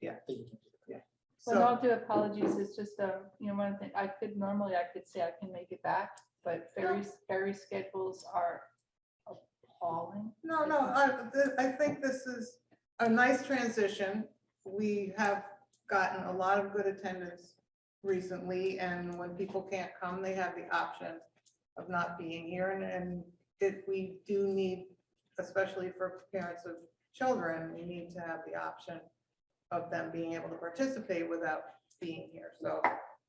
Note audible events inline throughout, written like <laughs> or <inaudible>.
Yeah. Yeah. With So, all due apologies, it's just a, you know, one thing, I could, normally I could say I can make it back, but ferry, ferry schedules are appalling. no, no, I, th- I think this is a nice transition. We have gotten a lot of good attendance recently, and when people can't come, they have the option of not being here, and, and it, we do need, especially for parents of children, we need to have the option of them being able to participate without being here. So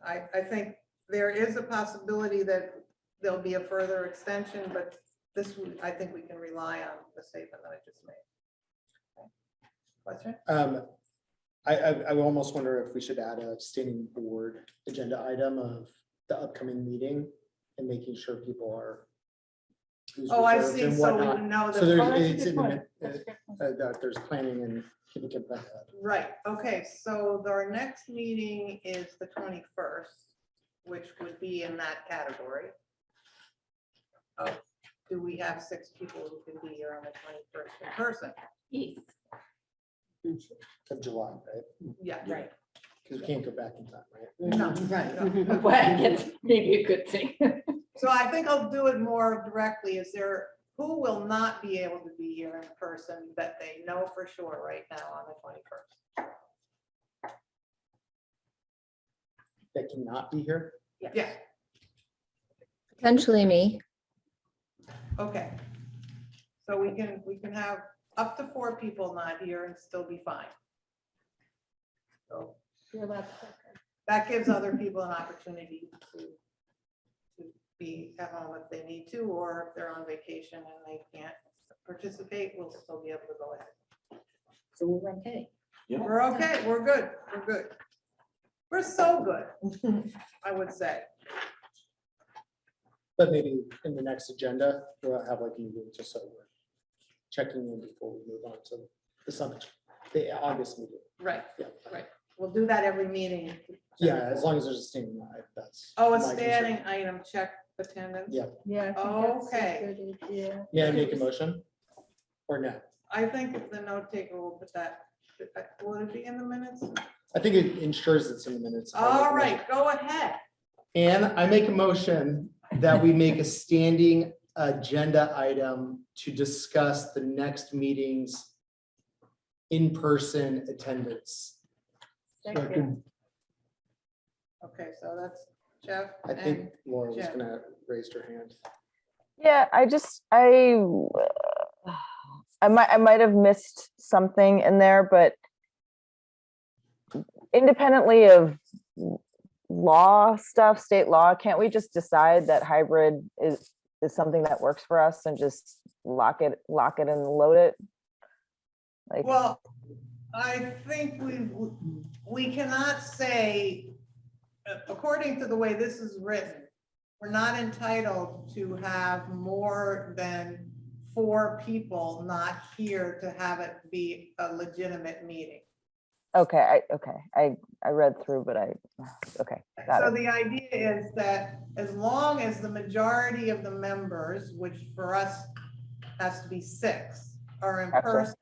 I, I think there is a possibility that there'll be a further extension, but this, we- I think we can rely on the statement that I just made. Okay. Question? Um, I, I, I almost wonder if we should add a standing board agenda item of the upcoming meeting and making sure people are. who's Oh, I reserved see, and so whatnot. we know So that, Oh, that's there's, a it's good in the, point. mi- That's a good point. uh, that there's planning and people can plan that. right, okay, so our next meeting is the twenty-first, which would be in that category. of Do we have six people who can be here on the twenty-first in person? Yes. Of July, right? Yeah, Right. Because we can't go back in time, right? no, no. Well, that's maybe a good thing. So I think I'll do it more directly. Is there, who will not be able to be here in person that they know for sure right now on the twenty-first? That cannot be here. Yeah, Potentially me. okay. So we can, we can have up to four people not here and still be fine. So You're allowed to- that <laughs> gives other people an opportunity to to be at home if they need to, or if they're on vacation and they can't participate, we'll still be able to go ahead. So we're okay. We're okay, we're good, we're good. We're so good, I would say. But maybe in the next agenda, we'll have like a meeting just so we're checking in before we move on to the summit, the August meeting. Right, Yeah. right. We'll do that every meeting. Yeah, as long as there's a standing, I- that's. Oh, a my concern. standing item, check attendance. Yeah. Yeah. I think that's a Okay. good idea. May I make a motion? Or no? I think the note taker will put that, will it be in the minutes? I think it ensures it's in the minutes. All right, go ahead. And I make a motion that we make a standing agenda item to discuss the next meeting's in-person attendance. Second. Okay, so that's Jeff I and think Laura was Jen. gonna raise her hand. Yeah, I just, I, I might, I might have missed something in there, but independently of law stuff, state law, can't we just decide that hybrid is, is something that works for us and just lock it, lock it and load it? Like, Well, I think we, we cannot say, uh, according to the way this is written, we're not entitled to have more than four people not here to have it be a legitimate meeting. okay, I, okay, I, I read through, but I, okay, got So it. the idea is that as long as the majority of the members, which for us has to be six, are in Gotcha. person,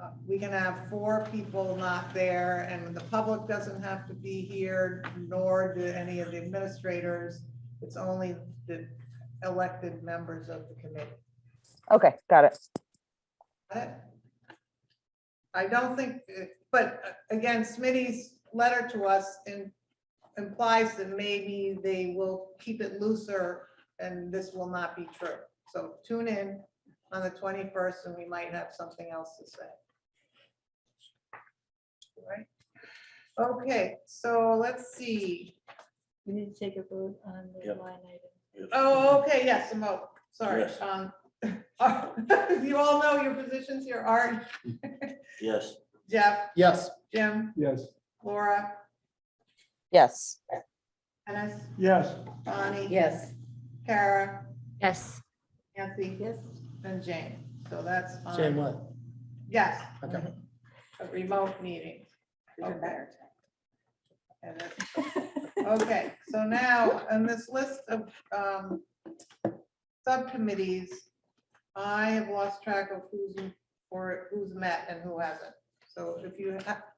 uh, we can have four people not there and the public doesn't have to be here, nor do any of the administrators. It's only the elected members of the committee. Okay, got it. Got it? I don't think, but again, Smitty's letter to us in- implies that maybe they will keep it looser and this will not be true. So tune in on the twenty-first and we might have something else to say. All Right? Okay, so let's see. We need to take a vote on the Yep. line item. Oh, okay, yes, a vote. sorry. Yes. um, <laughs> You all know your positions here, Art, Yes. Jeff, Yes. Jim. Yes. Laura, Yes. Dennis, Yes. Bonnie. Yes. Kara, Yes. Nancy. Yes. And Jane. So that's. on- Jane, what? Yes. Okay. A remote meeting. Okay. <laughs> And it's- Okay, so now, on this list of um, subcommittees, I have lost track of who's, or who's met and who hasn't. So if you ha-